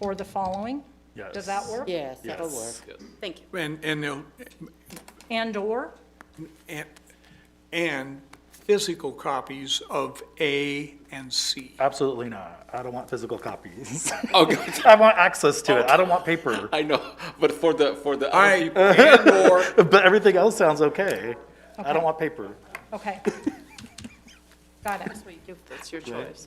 or the following? Yes. Does that work? Yes, that'll work. Yes. Thank you. And, and they'll, And/or? and, and physical copies of A and C. Absolutely not. I don't want physical copies. Oh, God, I want access to it. I don't want paper. I know, but for the, for the. All right, and/or But everything else sounds okay. I don't want paper. Okay. Got it. That's your choice.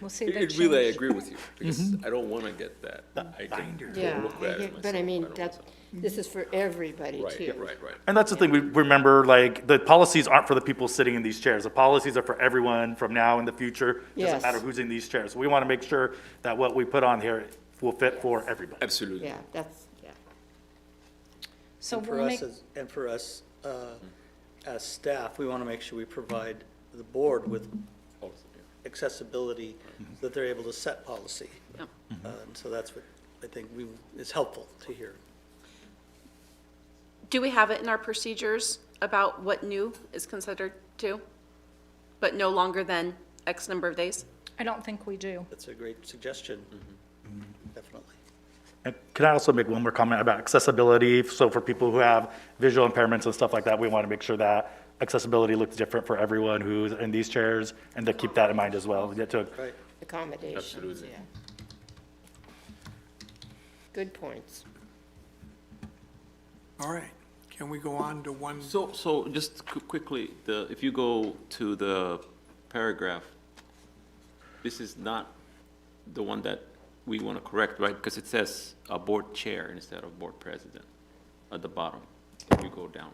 We'll see that It really, I change. agree with you, because I don't want to get that. I can Yeah, look bad I at get- but I myself. mean, don't that's, want this is for everybody to. too. Right, right, right. And that's the thing, we remember, like, the policies aren't for the people sitting in these chairs. The policies are for everyone from now in the future. Yes. Doesn't matter who's in these chairs. We want to make sure that what we put on here will fit for everybody. Absolutely. Yeah, that's, yeah. So For we'll us, make, as- and for us, uh, as staff, we want to make sure we provide the board with accessibility, that they're able to set policy. Yep. Uh, And so that's what I think we, is helpful to hear. Do we have it in our procedures about what new is considered to, but no longer than X number of days? I don't think we do. That's a great suggestion, definitely. And Can I also make one more comment about accessibility? So for people who have visual impairments and stuff like that, we want to make sure that accessibility looks different for everyone who's in these chairs, and to keep that in mind as well. Yeah, to- Right. accommodations, yeah. Good points. All right, can we go on to one? So, so just qu- quickly, the, if you go to the paragraph, this is not the one that we want to correct, right? Because it says a board chair instead of board president at the bottom, if you go down.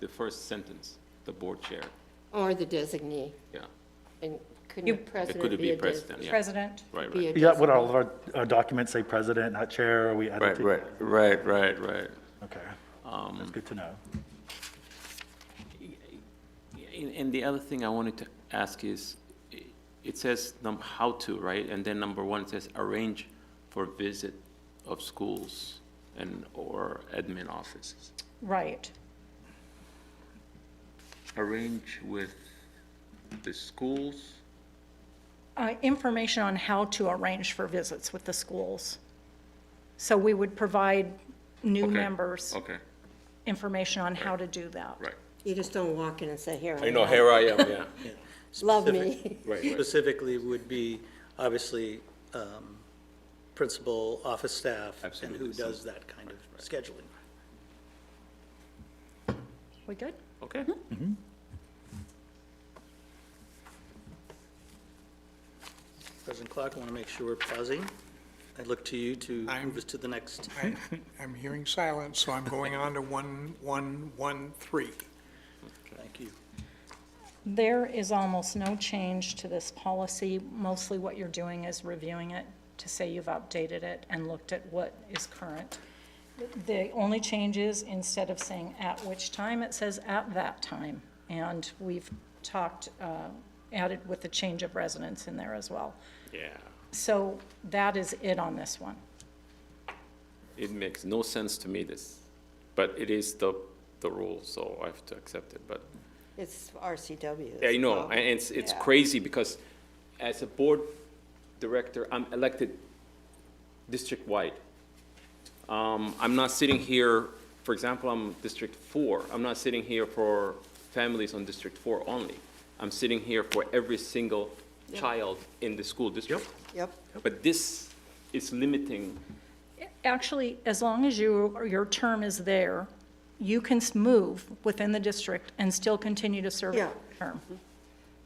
The first sentence, the board chair, Or the designee, yeah. and couldn't You- a It president It could be be a des- president, yeah. President, Right, be right. a Yeah, would designee? all of our, our documents say president, not chair? Are we? adding Right, to- right, Um, right, right, right. Okay. That's good to know. And, and the other thing I wanted to ask is, i- it says num, how to, right? And then number one, it says arrange for visit of schools and, or admin offices. right. Arrange with the schools? Uh, Information on how to arrange for visits with the schools. So we would provide new Okay, members Okay, information on how to do that. right. You just don't walk in and say, here I You know, am, here I am, yeah. love me. Specifically would be, obviously, um, principal, office staff, and who Absolutely. does that kind of scheduling. We good? Okay. Mm-hmm. President Clark, I want to make sure we're pausing. I look to you to I'm- move us to the next. I- I'm hearing silence, so I'm going on to one, one, one, three. Thank you. There is almost no change to this policy. Mostly what you're doing is reviewing it to say you've updated it and looked at what is current. The only change is instead of saying at which time, it says at that time. And we've talked, uh, added with the change of residence in there as well. Yeah. So that is it on this one. It makes no sense to me, this, but it is the, the rule, so I have to accept it, but It's RCW. I it's know, all- and it's, it's Yeah. crazy because as a board director, I'm elected district-wide. Um, I'm not sitting here, for example, I'm District Four, I'm not sitting here for families on District Four only. I'm sitting here for every single child in the school district. Yep, But this is limiting, Actually, as long as you, or your term is there, you can s- move within the district and still continue to serve your Yeah. term.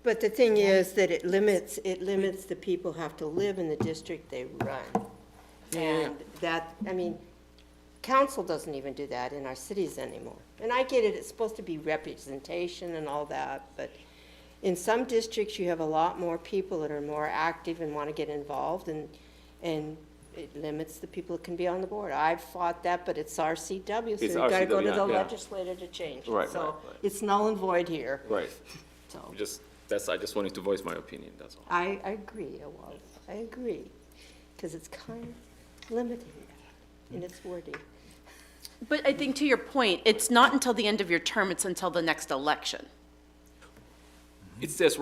but the thing is that it limits, it limits the people who have to live in the district they run. And that, I mean, council doesn't even do that in our cities anymore. And I get it, it's supposed to be representation and all that, but in some districts, you have a lot more people that are more active and want to get involved, and, and it limits the people that can be on the board. I've fought that, but it's RCW, so It's you've got to go to RCW, the yeah. legislator to change it. Right, right, So right. it's null and void here, right, so. just, that's, I just wanted to voice my opinion, that's all. I I agree, it was, I agree, because it's kind of limiting in its wording. But I think to your point, it's not until the end of your term, it's until the next election. Mm-hmm. It says